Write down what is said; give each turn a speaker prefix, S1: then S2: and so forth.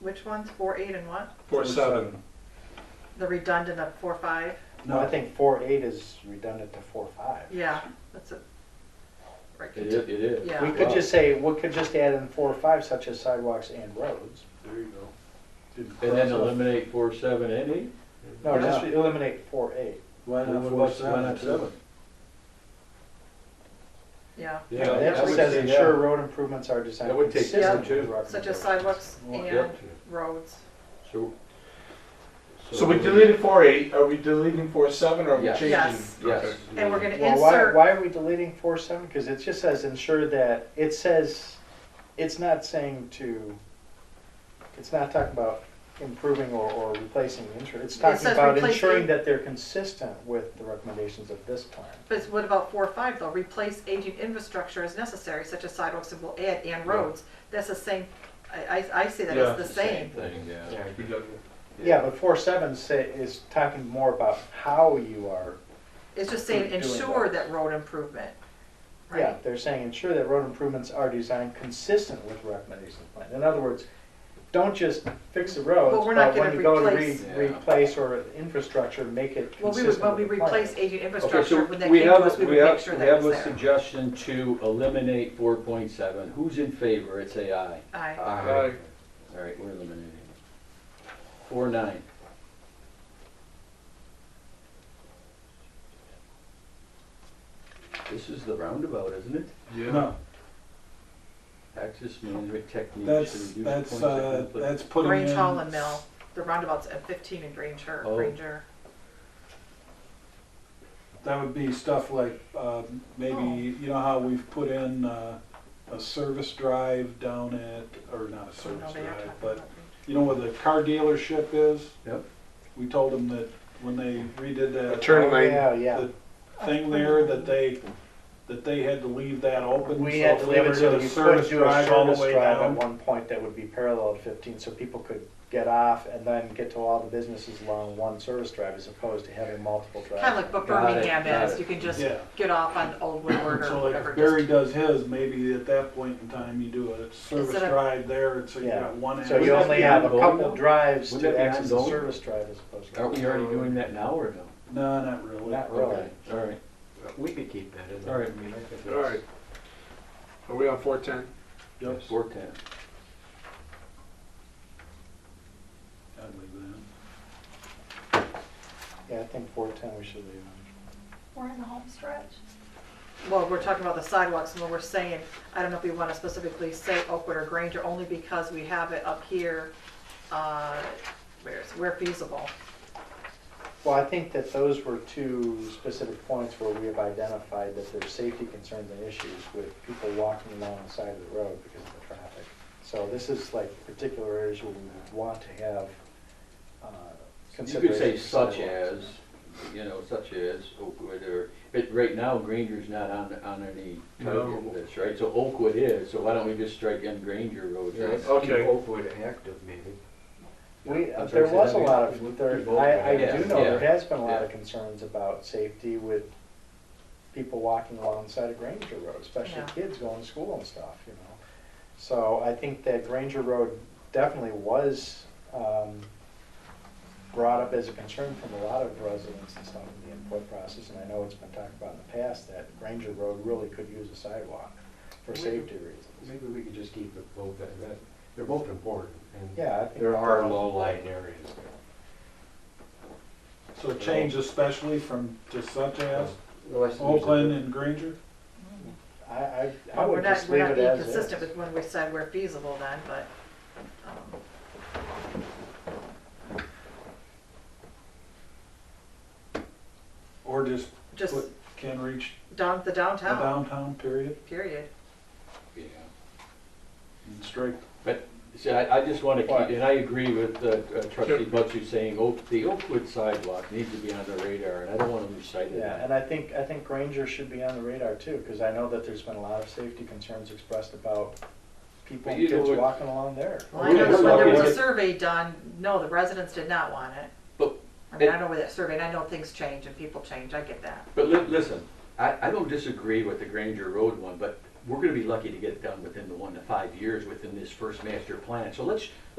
S1: Which ones, four, eight, and what?
S2: Four, seven.
S1: The redundant of four, five?
S3: No, I think four eight is redundant to four five.
S1: Yeah, that's a. right.
S4: It is, it is.
S1: Yeah.
S3: We could just say, we could just add in four or five such as sidewalks and roads.
S2: There you go. Didn't
S4: And then
S2: cross off.
S4: eliminate four, seven, and eight?
S3: No, just
S2: Yeah.
S3: eliminate four eight.
S2: Why
S4: Well,
S2: not
S4: what
S2: four,
S4: about- why not
S2: seven?
S1: Yeah,
S4: Yeah,
S3: That
S4: I would
S3: just says
S4: say,
S3: ensure
S4: yeah.
S3: road improvements are designed
S4: That would take
S3: consistent
S1: Yeah.
S3: with
S4: two.
S3: road
S1: such as
S3: improvements.
S1: sidewalks
S4: Well,
S1: and
S4: yep.
S1: roads.
S4: So.
S2: So we deleted four, eight, are we deleting four, seven, or are we
S4: Yes.
S2: changing?
S1: Yes.
S4: Yes.
S1: And we're gonna
S3: Well, why,
S1: insert,
S3: why are we deleting four seven? Because it just says ensure that, it says, it's not saying to, it's not talking about improving or, or replacing the insurance. It's
S1: It
S3: talking
S1: says
S3: about
S1: replace
S3: ensuring
S1: the-
S3: that they're consistent with the recommendations of this plan.
S1: but what about four, five though? Replace aging infrastructure as necessary, such as sidewalks and will add and roads. That's the same, I, I, I see that
S2: Yeah,
S1: as the
S4: It's the Same
S1: same.
S4: thing, yeah.
S2: Okay. Redundant.
S3: Yeah, but four seven say, is talking more about how you are,
S1: It's just saying
S3: Doing
S1: ensure
S3: roads.
S1: that road improvement,
S3: yeah,
S1: right?
S3: they're saying ensure that road improvements are designed consistent with the recommendations of the plan. In other words, don't just fix the roads,
S1: But we're not
S3: but when
S1: gonna
S3: you go to re,
S1: replace-
S4: Yeah.
S3: replace or infrastructure, make it
S1: Well, we would,
S3: consistent
S1: when we
S3: with the plan.
S1: replace aging
S4: Okay, so
S1: infrastructure, when that
S4: we
S1: came to
S4: have,
S1: us, we
S4: we
S1: would make
S4: have,
S1: sure
S4: we
S1: that
S4: have
S1: was
S4: a
S1: there.
S4: suggestion to eliminate four point seven. Who's in favor? It's a aye.
S1: Aye,
S2: Aye.
S4: All right, we're eliminating. Four nine. This is the roundabout, isn't it?
S2: No,
S4: Access management techniques. to
S5: That's,
S4: reduce
S5: that's,
S4: points of
S5: uh,
S4: conflict.
S5: that's putting in.
S1: Grange Hall and Mill, the roundabouts at fifteen in Granger,
S4: Oh.
S1: Granger.
S5: That would be stuff like, um,
S1: Oh.
S5: maybe, you know how we've put in, uh, a service drive down at, or not a
S1: So no,
S5: service
S1: they are talking
S5: drive,
S1: about
S5: but,
S1: Granger.
S5: you know where the car dealership is?
S4: Yep.
S5: We told them that when they
S2: A
S5: redid that. uh,
S2: turn lane.
S3: Yeah, yeah.
S5: Thing there, that they, that they had to leave that open.
S3: We
S5: so
S3: had
S5: if
S3: to
S5: they
S3: leave
S5: were
S3: it so
S5: gonna
S3: you could
S5: service
S3: do a
S5: drive all the
S3: service
S5: way
S3: drive at
S5: down,
S3: one point that would be parallel to fifteen, so people could get off and then get to all the businesses along one service drive as opposed to having multiple drives.
S1: Kind of like what
S4: Got it,
S1: Birmingham
S4: got
S1: is,
S4: it.
S1: you can just
S5: Yeah.
S1: get off on Old Woodward or
S5: So like
S1: whatever.
S5: if Barry
S1: just-
S5: does his, maybe at that point in time, you do a service
S1: Instead of-
S5: drive there, and so you
S3: Yeah.
S5: got one.
S3: So you
S4: Wouldn't that
S5: access.
S3: only
S4: be
S3: have a
S4: ongoing
S3: couple
S4: though?
S3: drives
S4: Wouldn't
S3: to
S4: that be
S3: access the
S4: ongoing? Oh.
S3: service drive as opposed to.
S4: Aren't we already doing that now or no?
S5: No, not really.
S3: Not really.
S4: Okay, All right,
S6: We could keep that in
S4: All
S6: there.
S4: right.
S6: I mean, I think
S2: All right. Are we on four, ten?
S5: Yep.
S4: four ten.
S5: I'd leave it
S3: Yeah, I think four ten we should leave.
S7: We're in the home stretch.
S1: Well, we're talking about the sidewalks, and when we're saying, I don't know if we want to specifically say Oakwood or Granger, only because we have it up here, uh, where it's, where feasible.
S3: Well, I think that those were two specific points where we have identified that there's safety concerns and issues with people walking along the side of the road because of the traffic. So this is like particular areas where we would want to have uh,
S4: You
S3: consideration.
S4: could say
S3: for
S4: such as,
S3: sidewalks.
S4: you know, such as Oakwood or, but right now Granger's not on, on any target
S2: No.
S4: list, right? So Oakwood is, so why don't we just strike in Granger Road?
S6: Yeah,
S4: right?
S6: let's
S2: Okay.
S6: Keep Oakwood active, maybe.
S3: We, uh,
S4: I'm
S3: there
S4: sorry, say
S3: was a
S4: that
S3: lot
S6: again.
S3: of, there,
S6: People-
S3: I, I
S4: Yeah,
S3: do know there
S4: yeah,
S3: has been a lot of
S4: yeah.
S3: concerns about safety with people walking alongside of Granger Road, especially
S1: Yeah.
S3: kids going to school and stuff, you know. So I think that Granger Road definitely was, um, brought up as a concern from a lot of residents and stuff in the input process, and I know it's been talked about in the past that Granger Road really could use a sidewalk for safety reasons.
S6: Maybe we could just keep it both, at that, they're both important. and
S3: Yeah, I think.
S6: There are
S3: that-
S6: low lying areas.
S5: in. So change especially from just such as
S6: Unless there's a-
S5: Oakland and Granger?
S3: I, I, I
S1: Well, we're
S3: would
S1: not-
S3: just leave it as is.
S1: We're not being consistent with when we said we're feasible then, but, um,
S5: Or just
S1: just
S5: put can reach
S1: down, the
S5: the
S1: downtown,
S5: downtown period
S1: period.
S4: Yeah.
S5: and strike.
S4: But, see, I, I just wanna
S3: Why?
S4: keep, and I agree with uh, uh, trustee Butcher saying, oh, the Oakwood sidewalk needs to be on the radar, and I don't wanna lose sight of
S3: Yeah,
S4: that.
S3: and I think, I think Granger should be on the radar too, because I know that there's been a lot of safety concerns expressed about people
S4: But
S3: and
S4: you know
S3: kids
S4: what-
S3: walking along there.
S1: Well, I know that
S4: Well,
S1: when there was
S4: yeah.
S1: a survey done, no, the residents did not want it.
S4: But-
S1: I mean, I know where that survey, and I know things change and people change, I get that.
S4: But li- listen, I, I don't disagree with the Granger Road one, but we're gonna be lucky to get it done within the one to five years within this first master plan. So let's,